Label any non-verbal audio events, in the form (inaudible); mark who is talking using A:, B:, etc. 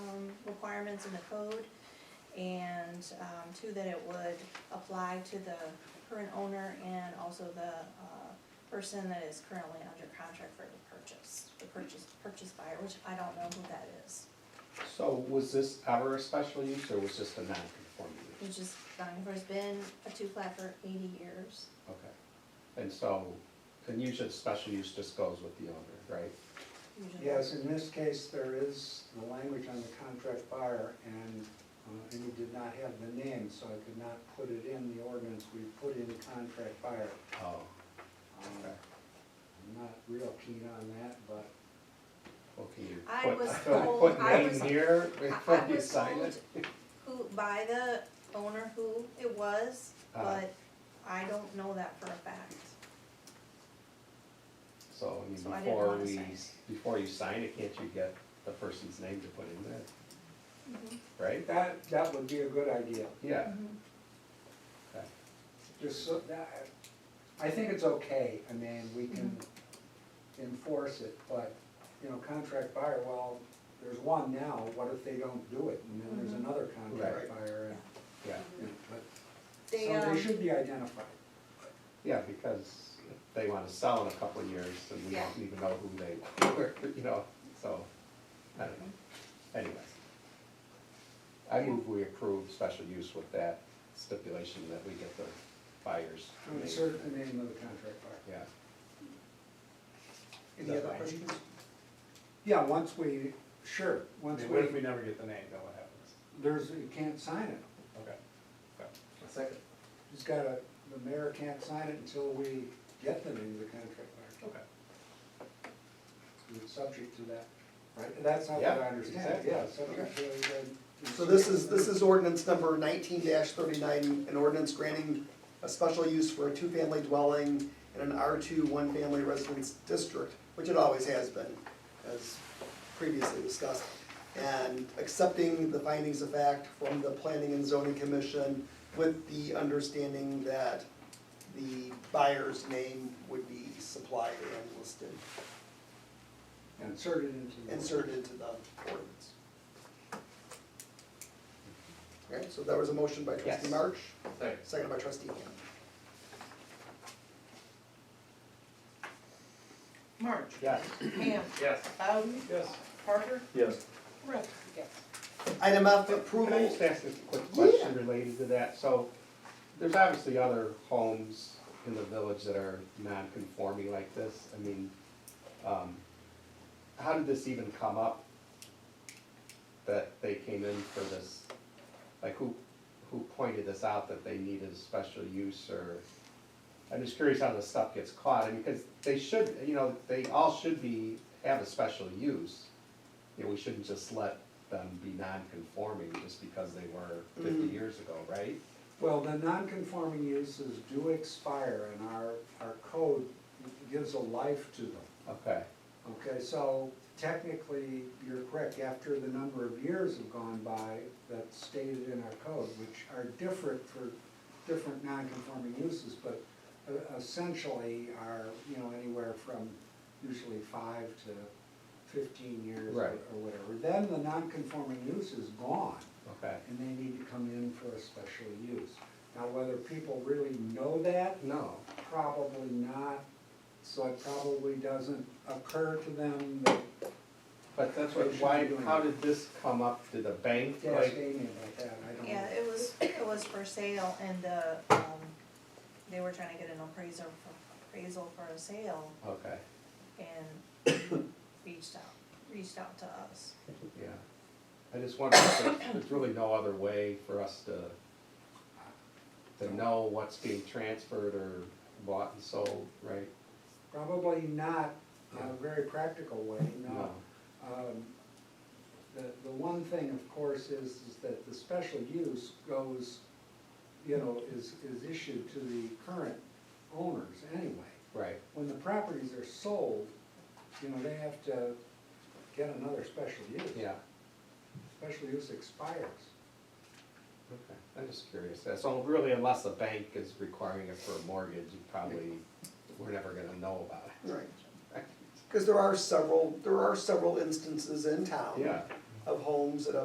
A: um, requirements in the code, and, um, two, that it would apply to the current owner and also the, uh, person that is currently under contract for the purchase, the purchase, purchase buyer, which I don't know who that is.
B: So was this ever a special use or was this a non-conforming use?
A: Which is, has been a two-plat for eighty years.
B: Okay. And so, and usually the special use just goes with the owner, right?
A: usually.
C: Yes, in this case, there is the language on the contract buyer, and, uh, and we did not have the name, so I could not put it in the ordinance, we put in contract buyer.
B: Oh,
C: Um,
B: Okay.
C: I'm not real keen on that, but
B: well, can you
A: I
B: (laughs) put,
A: was
B: can you
A: told-
B: put
A: I
B: name
A: was-
B: here (laughs)
A: I- I
B: before you
A: was
B: sign
A: told
B: it?
A: who, by the owner who it was,
B: Uh.
A: but I don't know that for a fact.
B: So, I mean,
A: So I didn't
B: before
A: wanna
B: we,
A: sign it.
B: before you sign it, can't you get the person's name to put in there, right?
C: that, that would be a good idea.
B: Yeah,
A: Mhm.
B: okay.
C: Just so, that, I think it's okay, I mean, we can enforce it, but, you know, contract buyer, well, there's one now, what if they don't do it? And then there's
A: Mhm.
C: another contract buyer,
B: yeah,
C: and, you know, but,
A: They,
C: so
A: um,
C: they should be identified.
B: yeah, because if they wanna sell in a couple of years and we
A: Yeah.
B: don't even know who they were, (laughs) you know, so, I don't know, anyways. I move we approve special use with that stipulation that we get the buyers.
C: Insert the name of the contract buyer.
B: Yeah,
C: Any other questions? Yeah, once we, sure,
D: I
C: once
D: mean, What if we
C: we,
D: never get the name, then what happens?
C: there's, you can't sign it.
D: Okay. Okay.
B: second.
C: He's gotta, the mayor can't sign it until we get the name of the contract buyer.
D: Okay.
C: It's subject to that, right? That's not what
B: Yeah,
C: I understand,
B: exactly.
C: yeah, subject to the.
E: So this is, this is ordinance number nineteen thirty-nine, an ordinance granting a special use for a two-family dwelling in an R two one-family residence district, which it always has been, as previously discussed. And accepting the findings of fact from the Planning and Zoning Commission with the understanding that the buyer's name would be supplied and listed,
C: Insert it into. the-
E: inserted into the ordinance. Okay, so that was a motion by trustee
B: Yes.
E: March,
B: Second.
E: seconded by trustee Ham.
F: March.
B: Yes.
F: Ham.
D: Yes.
F: Bowden.
D: Yes.
F: Parker.
D: Yes.
F: Rip. Yes.
E: Item F,
B: Can I
E: approval,
B: just ask a quick question related to that? So, there's obviously other homes in the village that are non-conforming like this. I mean, um, how did this even come up? That they came in for this, like who, who pointed this out that they needed a special use or? I'm just curious how this stuff gets caught, I mean, because they should, you know, they all should be, have a special use. You know, we shouldn't just let them be non-conforming just because they were fifty years ago, right?
C: Well, the non-conforming uses do expire and our, our code gives a life to them.
B: Okay,
C: Okay, so technically, you're correct, after the number of years have gone by that's stated in our code, which are different for different non-conforming uses, but uh, essentially are, you know, anywhere from usually five to fifteen years or
B: Right.
C: or whatever. Then the non-conforming use is gone,
B: okay.
C: and they need to come in for a special use. Now, whether people really know that,
B: No,
C: Probably not, so it probably doesn't occur to them that
B: but that's what, why, how did this come up? Did the bank
C: gas
B: like?
C: gaming like that, I don't know.
A: Yeah, it was, it was for sale and the, um, they were trying to get an appraiser, for- appraisal for a sale
B: Okay,
A: and reached out, reached out to us.
B: yeah. I just wonder if there's- there's really no other way for us to, to know what's being transferred or bought and sold, right?
C: Probably not
B: Yeah.
C: a very practical way, no. Um, The, the one thing, of course, is, is that the special use goes, you know, is, is issued to the current owners anyway.
B: Right,
C: When the properties are sold, you know, they have to get another special use.
B: yeah.
C: Special use expires.
B: Okay, I'm just curious. Uh, So really, unless the bank is requiring it for a mortgage, you probably, we're never gonna know about it. (laughs)
E: right, because there are several, there are several instances in town
B: Yeah.
E: of homes that have